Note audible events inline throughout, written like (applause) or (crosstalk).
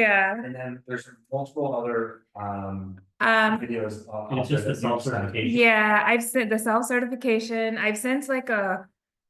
Yeah, And then there's multiple other um um, videos. uh, It's just that the you've sent. self-certification. yeah, I've sent the self-certification, I've sent like a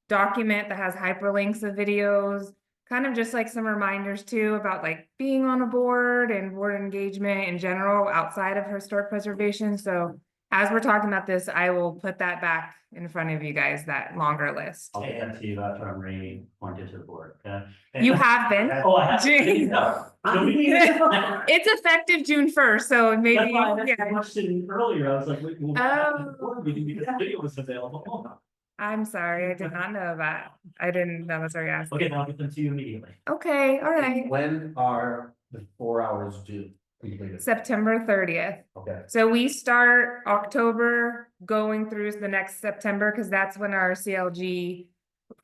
document that has hyperlinks of videos. Kind of just like some reminders too about like being on a board and board engagement in general outside of historic preservation, so. As we're talking about this, I will put that back in front of you guys, that longer list. I'll get that to you after I'm ready, pointed to the board, okay? You have been, (laughs) Oh, I have. Jeez. No. Don't (laughs) be- That's it's effective June first, so maybe, why I asked the yeah, question earlier, I was like, wait, well, Oh. board meeting because the video was available. I'm sorry, I did not know that. I didn't, that was our ask. Okay, then I'll get them to you immediately. Okay, all right. When are the four hours due completed? September thirtieth. Okay, So we start October going through the next September, because that's when our CLG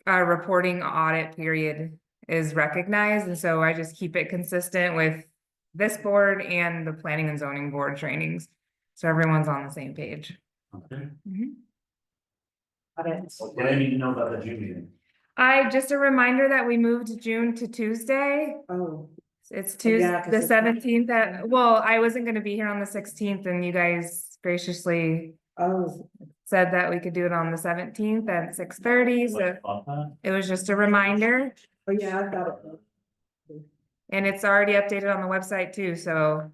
uh, reporting audit period is recognized, and so I just keep it consistent with this board and the planning and zoning board trainings. So everyone's on the same page. Okay. Mm-hmm. Got it. What do I need to know about the June meeting? I, just a reminder that we moved June to Tuesday. Oh, It's Yeah, Tuesday, 'cause the it's not- seventeenth, well, I wasn't gonna be here on the sixteenth, and you guys graciously oh, said that we could do it on the seventeenth at six thirty, so What uh, about that? it was just a reminder. oh, yeah, I got it. And it's already updated on the website too, so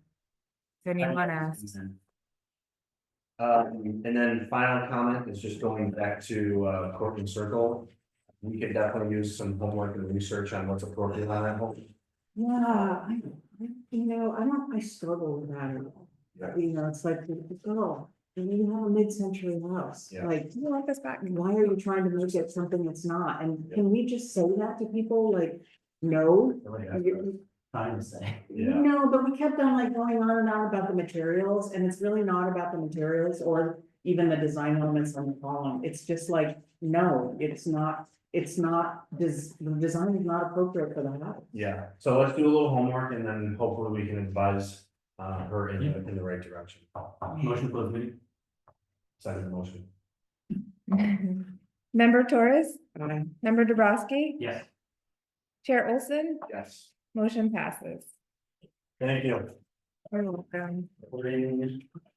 if anyone asks. um, and then final comment is just going back to uh Courtney Circle. We could definitely use some homework and research on what's appropriate on that whole. Yeah, I, I- you know, I don't, I struggle with that at all. Yeah. You know, it's like, oh, and you have a mid-century house, Yeah. like, Do you want this back? why are you trying to make it something it's not? And Yeah. can we just say that to people, like, no? You- Time to say. Yeah. No, but we kept on like going on and on about the materials, and it's really not about the materials or even the design elements on the column, it's just like, no, it's not. It's not, this, the design is not appropriate for the house. Yeah, so let's do a little homework and then hopefully we can advise uh her in the in the right direction. Motion for the meeting? Second motion. (laughs) Member Torres, Aye. member Dubrasky, Yes. Chair Olson, Yes. motion passes. Thank you. You're welcome. What do you need?